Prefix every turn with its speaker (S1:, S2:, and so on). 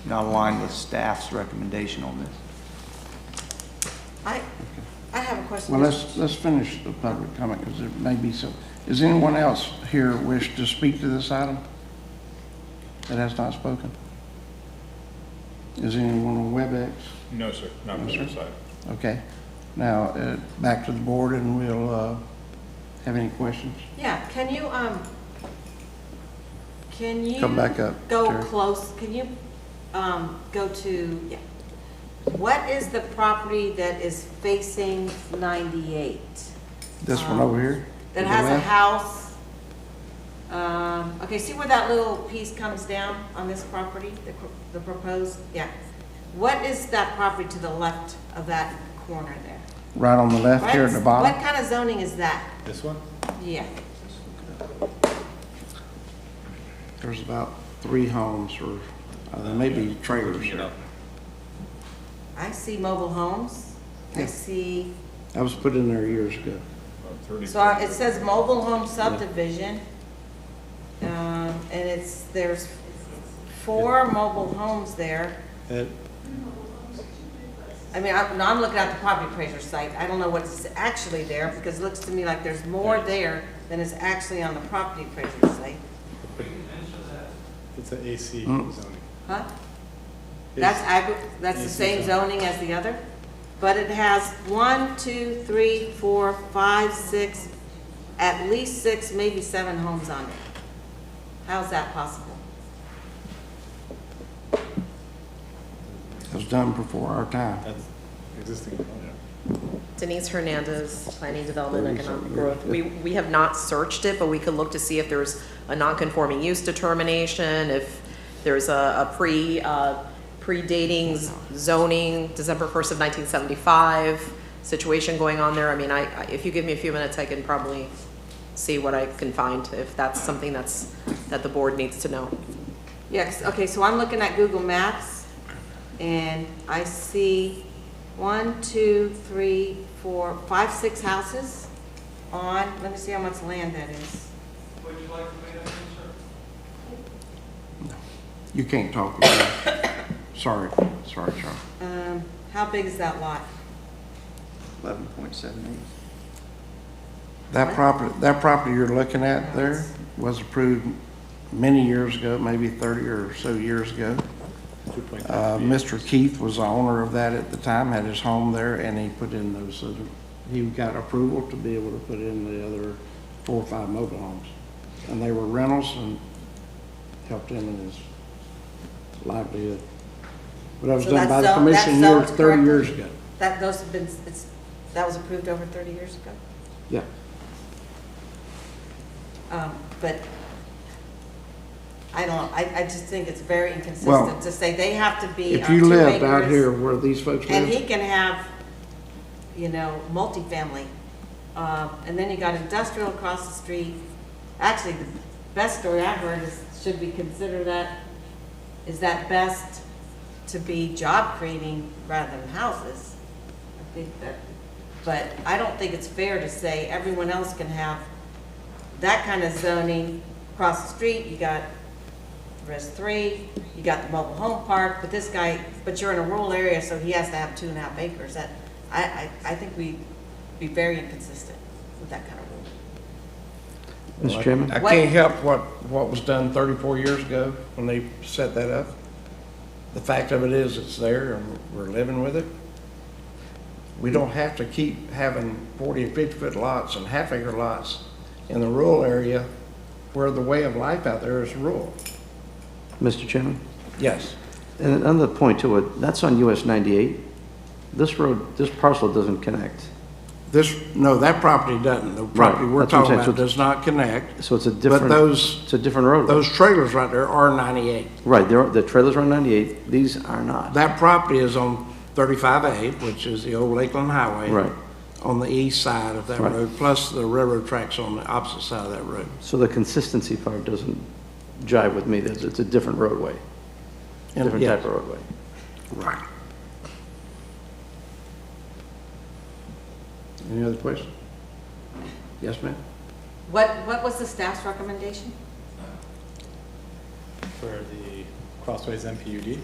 S1: not aligned with staff's recommendation on this.
S2: I, I have a question.
S3: Well, let's, let's finish the public comment, because there may be some, does anyone else here wish to speak to this item that has not spoken? Is anyone on WebEx?
S4: No, sir, not from
S3: sir.
S4: this side.
S3: Okay, now, uh, back to the board, and we'll uh, have any questions?
S2: Yeah, can you, um, can you?
S3: Come back up,
S2: Go
S3: Terry.
S2: close, can you, um, go to, yeah. What is the property that is facing ninety-eight?
S3: This one over here?
S2: That
S3: to the
S2: has a
S3: left?
S2: house? Um, okay, see where that little piece comes down on this property, the, cr- the proposed, yeah. What is that property to the left of that corner there?
S3: Right on the left here at the
S2: What's-
S3: bottom?
S2: What kind of zoning is that?
S4: This one?
S2: Yeah.
S3: There's about three homes, or uh, there may be trailers
S4: You
S3: here.
S4: know,
S2: I see mobile homes. I
S3: Yeah.
S2: see,
S3: That was put in there years ago.
S4: about 30
S2: so I- it says mobile home subdivision. Um, and it's, there's four mobile homes there.
S3: That-
S2: I mean, I'm, no, I'm looking at the property appraiser site. I don't know what's actually there because it looks to me like there's more there than is actually on the property appraiser site.
S5: It's an AC
S3: Mm.
S2: Oh.
S5: zoning.
S2: Huh? That's
S5: It's-
S2: agri, that's the
S5: Yes,
S2: same
S5: it's
S2: zoning as the other, but it has one, two, three, four, five, six, at least six, maybe seven homes on it. How's that possible?
S3: That was done before our time.
S5: That's existing.
S6: Denise Hernandez, Planning Development and Economic Growth. We, we have not searched it, but we could look to see if there's a non-conforming use determination, if there's a, a pre, uh, predating z- zoning, December 1st of 1975 situation going on there. I mean, I, I- if you give me a few minutes, I can probably see what I can find, if that's something that's, that the board needs to know.
S2: Yes, okay, so I'm looking at Google Maps, and I see one, two, three, four, five, six houses on, let me see how much land that is.
S3: You can't talk. about it. Sorry, sorry, Charlie.
S2: Um, how big is that lot?
S1: Eleven point seven eight.
S3: That property, that property you're looking at there was approved many years ago, maybe 30 or so years ago. Uh, Mr. Keith was the owner of that at the time, had his home there, and he put in those, other- he got approval to be able to put in the other four or five mobile homes. And they were rentals and helped him in his livelihood. But that was
S2: So
S3: done by
S2: that's
S3: the
S2: zoned- that's
S3: commission years,
S2: zoned
S3: 30 years
S2: correctly?
S3: ago.
S2: That, those have been, it's, that was approved over thirty years ago?
S3: Yeah.
S2: Um, But I don't, I, I just think it's very
S3: Well,
S2: inconsistent to say they have to be
S3: If
S2: on
S3: you
S2: two
S3: lived out here
S2: acres.
S3: where these folks
S2: And
S3: lived,
S2: he can have, you know, multifamily. Uh, And then you got industrial across the street. Actually, the best story I heard is, should we consider that, is that best to be job creating rather than houses? I think that, but I don't think it's fair to say everyone else can have that kind of zoning across the street, you got Res three, you got the mobile home park, but this guy, but you're in a rural area, so he has to have two and a half acres, that, I, I, I think we be very inconsistent with that kind of rule.
S3: Mr. Chairman? I
S2: What-
S3: can't help what, what was done 34 years ago when they set that up. The fact of it is, it's there and we're living with it. We don't have to keep having 40 and 50-foot lots and half-acre lots in the rural area where the way of life out there is rural.
S7: Mr. Chairman,
S3: Yes.
S7: and another point to it, that's on US 98. This road, this parcel doesn't connect,
S3: This, no, that property doesn't. The property we're
S7: that's what I'm
S3: talking
S7: saying.
S3: about
S7: So-
S3: does not connect.
S7: so it's a different...
S3: those-
S7: It's a different road.
S3: Those trailers right there are 98.
S7: Right, there are- the trailers are on 98, these are not.
S3: That property is on 35A, which is the old Lakeland Highway.
S7: Right.
S3: On the east side of that
S7: Right.
S3: road, plus the railroad tracks on the opposite side of that road.
S7: So the consistency part doesn't jive with me, There's- it's a different roadway,
S3: And-
S7: different
S3: yeah,
S7: type of roadway.
S3: Right. Any other questions? Yes, ma'am?
S2: What, what was the staff's recommendation?
S5: For the Crossways MPUD.